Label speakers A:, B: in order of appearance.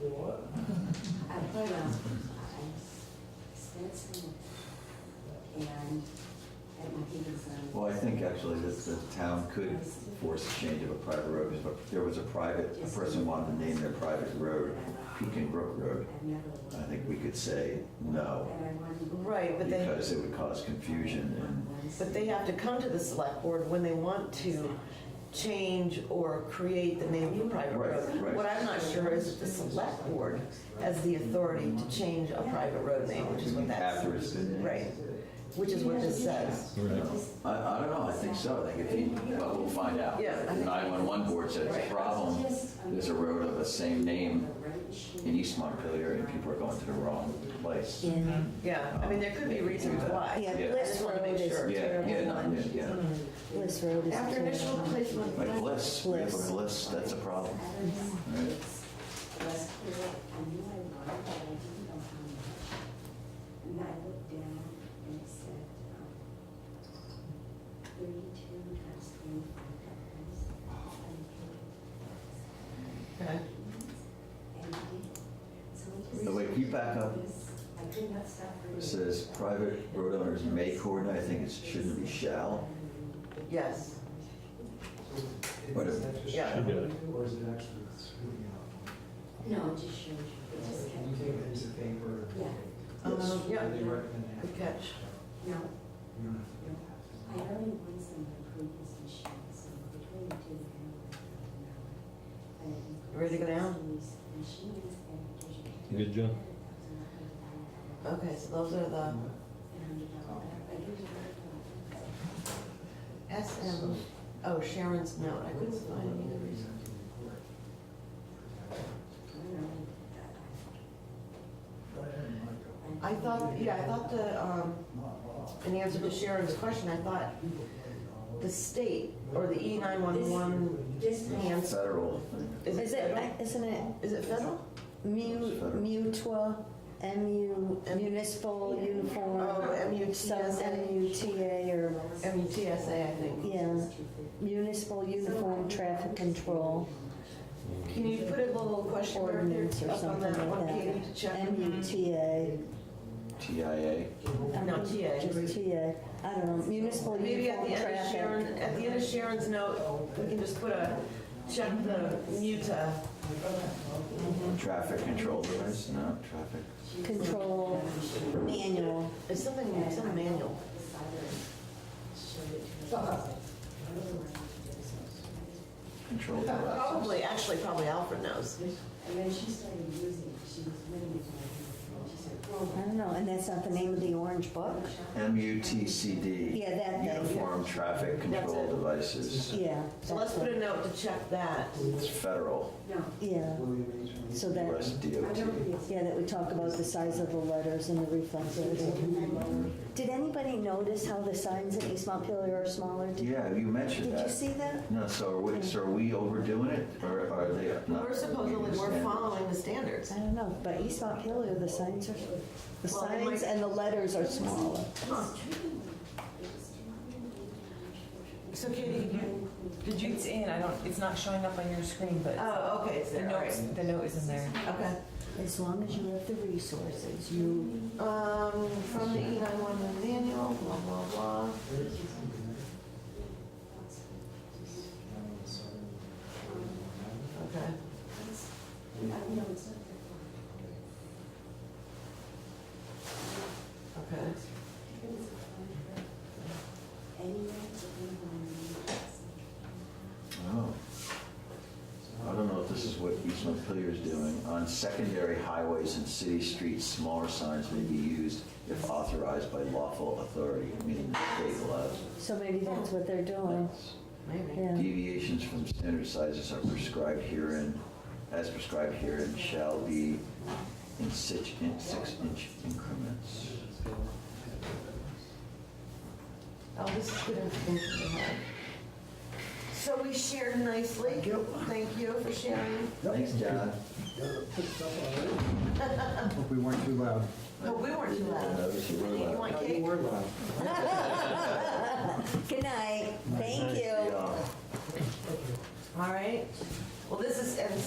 A: What?
B: I put a, I spent some, and at my biggest,
C: Well, I think actually that the town could force a change of a private road, because if there was a private, a person wanted to name their private road Pekin Brook Road,
B: I've never.
C: I think we could say no,
B: And I wanted.
D: Right, but they,
C: because it would cause confusion and,
D: but they have to come to the select board when they want to change or create the name of a private
C: Right, right.
D: road. What I'm not sure is if the select board has the authority to change a private road name, which is what that's,
C: after it's been. named.
D: right, which is what this says.
C: I, I don't know, I think so, I think if you, but we'll find out.
D: Yeah, I
C: The
D: think-
C: 911 board said it's a problem, there's a road of the same name in East Montpelier, and people are going to the wrong place.
E: In,
D: Yeah, I mean, there could be reasons why.
E: yeah,
C: Yeah.
D: I
E: Bliss
D: just want to
E: Road
D: make
E: is
D: sure.
C: Yeah, yeah, no,
E: terrible
C: yeah,
E: one.
C: yeah.
E: Bliss Road is.
D: After
E: terrible.
D: initial placement.
C: Like bliss, we have a bliss, that's a problem. Right.
B: West Hill, I knew I wanted, but I didn't know how much. And I looked down and it said, um, thirty-two times twenty-five dollars.
D: Okay.
B: And I did. So I just-
C: No, wait, can you back up?
B: I could not stop. reading.
C: It says private road owners may coordinate, I think it shouldn't be shall.
D: Yes,
C: What if-
D: Yeah.
F: Should do it.
A: Or is it actually screwing out?
B: No, it just shows you, it just
A: Can you
B: kept,
A: take it as a favor?
B: Yeah.
D: Um, yeah.
A: They recommend that.
D: good catch.
B: no,
A: You
B: I
A: don't have to do that.
B: only want some improvements and shit, so between the two, I don't know.
D: Ready to go down?
F: You good, John?
D: Okay, so those are the SM, oh, Sharon's note, I couldn't find any other reason. I thought, yeah, I thought the, um, in answer to Sharon's question, I thought the state or the E nine one one
B: This man,
D: hands,
C: Federal.
D: is
E: Is
D: it
E: it,
D: federal?
E: isn't it
D: Is it federal?
E: mu, mutua, MU, municipal
D: Oh,
E: uniform? Some
D: MUTSA,
E: MUTA or,
D: MUTSA, I think.
E: yeah, municipal uniform traffic control
D: Can you put a little question mark there
E: ordinance or
D: up on
E: something
D: that one, Katie,
E: like
D: to
E: that.
D: check?
E: MUTA.
C: TIA.
E: I
D: No,
E: think
D: TA.
E: Just TA, I don't know, municipal
D: Mm-hmm. Maybe at
E: uniform
D: the end of Sharon,
E: traffic.
D: at the end of Sharon's note, we can just put a, check the uh, MUTA.
E: Mm-hmm.
C: Traffic control device, no, traffic.
E: Control manual.
D: It's something, some manual.
C: Control device.
D: Probably, actually, probably Alfred knows.
B: and then she started using, it. she was really, she said,
E: I don't know, and that's not the name of the orange book?
C: MUTCD.
E: Yeah, that thing.
C: Uniform Traffic Control
D: That's it.
C: Devices.
E: Yeah.
D: So let's
E: that's
D: put a note to check that.
C: It's federal,
B: no,
E: Yeah, so
C: US
E: that,
B: I
C: DOT.
B: don't think it's.
E: yeah, that we talk about the size of the letters and the reflexes. Did anybody notice how the signs in East Montpelier are smaller? Did-
C: Yeah, you mentioned
E: Did you
C: that.
E: see that?
C: No, so are we, so are we overdoing it, or are they not?
D: We're supposedly, we're following the standards.
E: I don't know, but East Montpelier, the signs are, the
D: Well, they
E: signs
D: might-
E: and the letters are smaller.
G: So Katie, did you, did you, it's in, I don't, it's not showing up on your screen, but
D: Oh, okay, it's
G: the
D: there, all right.
G: notes, the note is in there.
D: Okay.
E: As long as you have the resources, you,
D: Um, from the E nine one one manual, blah, blah, blah. Okay. Okay.
C: Oh. I don't know if this is what East Montpelier is doing. On secondary highways and city streets, smaller signs may be used if authorized by lawful authority, meaning the state allows.
E: so maybe that's what they're doing,
D: Maybe.
E: yeah.
C: Deviations from standard sizes are prescribed herein, as prescribed herein, shall be in six, in six-inch increments.
D: Oh, this is good information to have. So we shared nicely. Thank you. for sharing.
C: Thanks, John.
H: Hope we weren't too loud.
D: But we weren't too
C: Uh,
D: loud.
C: this is really
D: You
C: loud.
D: want
H: You
D: cake?
H: were loud.
E: Good night, thank you.
C: uh, Yeah.
D: All right. Well, this is, and